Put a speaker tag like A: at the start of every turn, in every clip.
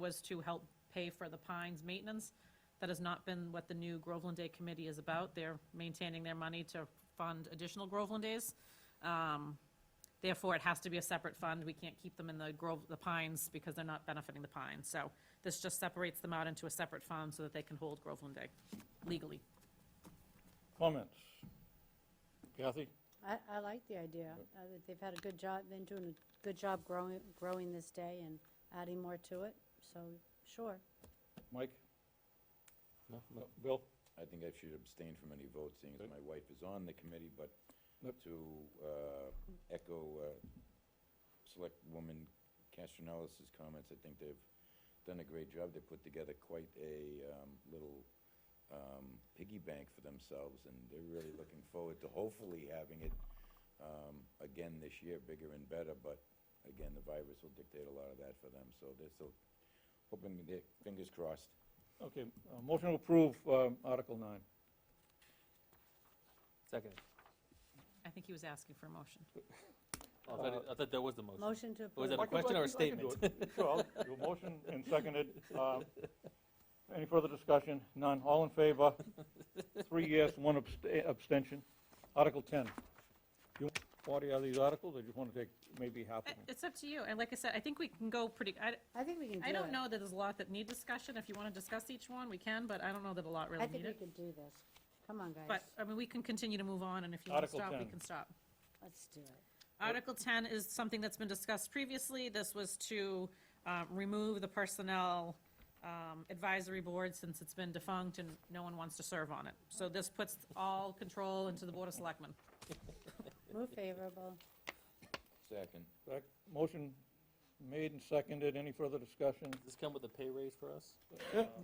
A: was to help pay for the Pines maintenance. That has not been what the new Groveland Day Committee is about. They're maintaining their money to fund additional Groveland Days. Um, Therefore, it has to be a separate fund. We can't keep them in the Grove, the Pines, because they're not benefiting the Pines. So this just separates them out into a separate fund so that they can hold Groveland Day legally.
B: Comments? Kathy?
C: I, I like the idea. uh, that They've had a good job, been doing a good job growing, growing this day and adding more to it, so, sure.
B: Mike?
D: No,
B: No, Bill?
E: I think I should abstain from any votes, seeing as
B: Okay.
E: my wife is on the committee, but
B: Yep.
E: to uh, echo uh, Selectwoman Castronellis's comments, I think they've done a great job. They put together quite a um, little um, piggy bank for themselves, and they're really looking forward to hopefully having it um, again this year, bigger and better, but again, the virus will dictate a lot of that for them, so they're still hoping, their fingers crossed.
B: Okay, uh, motion to approve um, Article 9.
D: Second.
A: I think he was asking for a motion.
D: Oh, I thought it- I thought that was the motion.
C: Motion to
D: Was
C: approve.
D: that a
B: I can- I
D: question or a
B: can- I can do
D: statement?
B: it. Sure, I'll- your motion and seconded. um, Any further discussion? None. All in favor? Three yes, one abst- eh, abstention. Article 10. You want 40 of these articles, or you want to take maybe half
A: I-
B: of them?
A: It's up to you. And like I said, I think we can go pretty, I,
C: I think we can do it.
A: I don't know that there's a lot that need discussion. If you want to discuss each one, we can, but I don't know that a lot
C: I
A: really
C: think
A: need
C: we
A: it.
C: could do this. Come on, guys,
A: But, I mean, we can continue to move on, and if you want to
B: Article
A: stop, we
B: 10.
A: can stop.
C: let's do it.
A: Article 10 is something that's been discussed previously. This was to uh, remove the Personnel um, Advisory Board since it's been defunct and no one wants to serve on it. So this puts all control into the Board of Selectmen.
C: Move favorable.
E: Second.
B: Sec- Motion made and seconded. Any further discussion?
D: Does this come with a pay raise for us?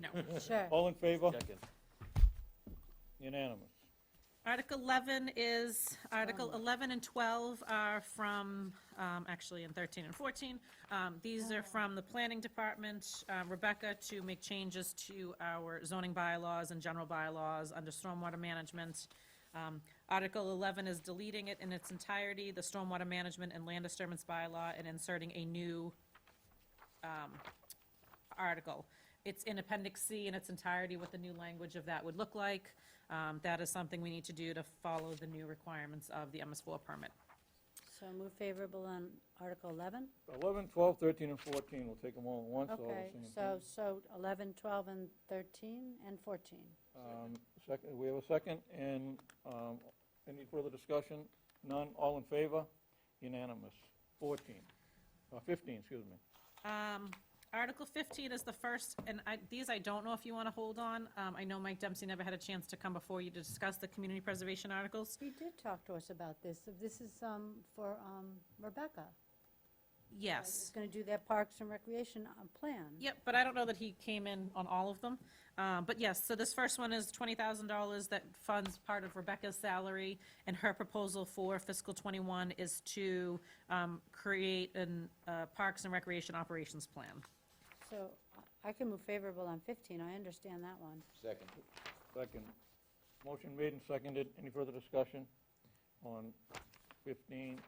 A: No.
C: Sure.
B: All in favor?
D: Second.
B: Unanimous.
A: Article 11 is, Article 11 and 12 are from, um, actually, in 13 and 14. Um, These are from the Planning Department, uh, Rebecca, to make changes to our zoning bylaws and general bylaws under stormwater management. Um, Article 11 is deleting it in its entirety, the stormwater management and land disturbance bylaw, and inserting a new um, article. It's in Appendix C in its entirety, what the new language of that would look like. Um, That is something we need to do to follow the new requirements of the MS4 permit.
C: So move favorable on Article 11?
B: 11, 12, 13, and 14, we'll take them all at once, all the
C: Okay,
B: same.
C: so, so 11, 12, and 13, and 14.
B: Um, Second, we have a second, and um, any further discussion? None, all in favor? Unanimous. 14, uh, 15, excuse me.
A: Um, Article 15 is the first, and I, these I don't know if you want to hold on. Um, I know Mike Dempsey never had a chance to come before you to discuss the community preservation articles.
C: He did talk to us about this. This is um, for um, Rebecca. It's
A: Yes.
C: going to do their Parks and Recreation uh, plan.
A: Yep, but I don't know that he came in on all of them. Um, But yes, so this first one is $20,000 that funds part of Rebecca's salary, and her proposal for fiscal '21 is to um, create an uh, Parks and Recreation Operations Plan.
C: So I I can move favorable on 15, I understand that one.
E: Second.
B: Second. Motion made and seconded. Any further discussion on 15?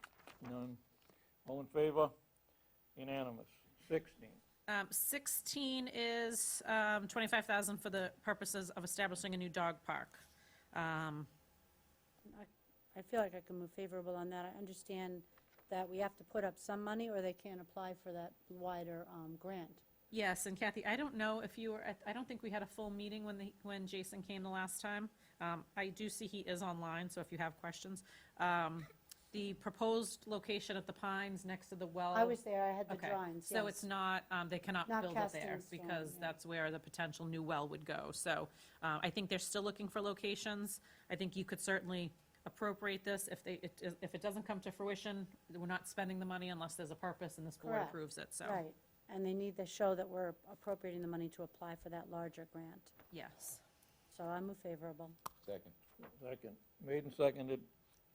B: None. All in favor? Unanimous. 16.
A: Um, 16 is um, 25,000 for the purposes of establishing a new dog park. Um,
C: I feel like I can move favorable on that. I understand that we have to put up some money or they can't apply for that wider um, grant.
A: Yes, and Kathy, I don't know if you were, at- I don't think we had a full meeting when the, when Jason came the last time. Um, I do see he is online, so if you have questions. Um, The proposed location at the Pines next to the well.
C: I was there, I had the
A: Oh, Okay,
C: drawings,
A: So
C: yes.
A: it's not, um, they cannot
C: Not
A: build it
C: cast in
A: there
C: stone,
A: because
C: yeah.
A: that's where the potential new well would go. So, uh, I think they're still looking for locations. I think you could certainly appropriate this if they, it- if it doesn't come to fruition, we're not spending the money unless there's a purpose and this board
C: Correct.
A: approves it, so.
C: Right, and they need to show that we're appropriating the money to apply for that larger grant.
A: Yes.
C: So I move favorable.
E: Second.
B: Second. Made and seconded.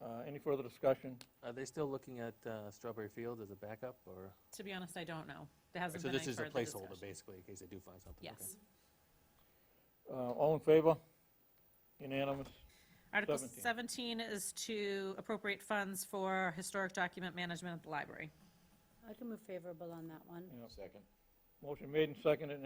B: Uh, Any further discussion?
D: Are they still looking at uh, Strawberry Fields as a backup, or?
A: To be honest, I don't know. There hasn't
D: So
A: been any
D: this is a
A: further
D: placeholder,
A: discussion.
D: basically, in case they do find something? okay.
A: Yes.
B: Uh, All in favor? Unanimous.
A: Article
B: 17.
A: 17 is to appropriate funds for historic document management at the library.
C: I can move favorable on that one.
B: Yeah.
E: Second.
B: Motion made and seconded,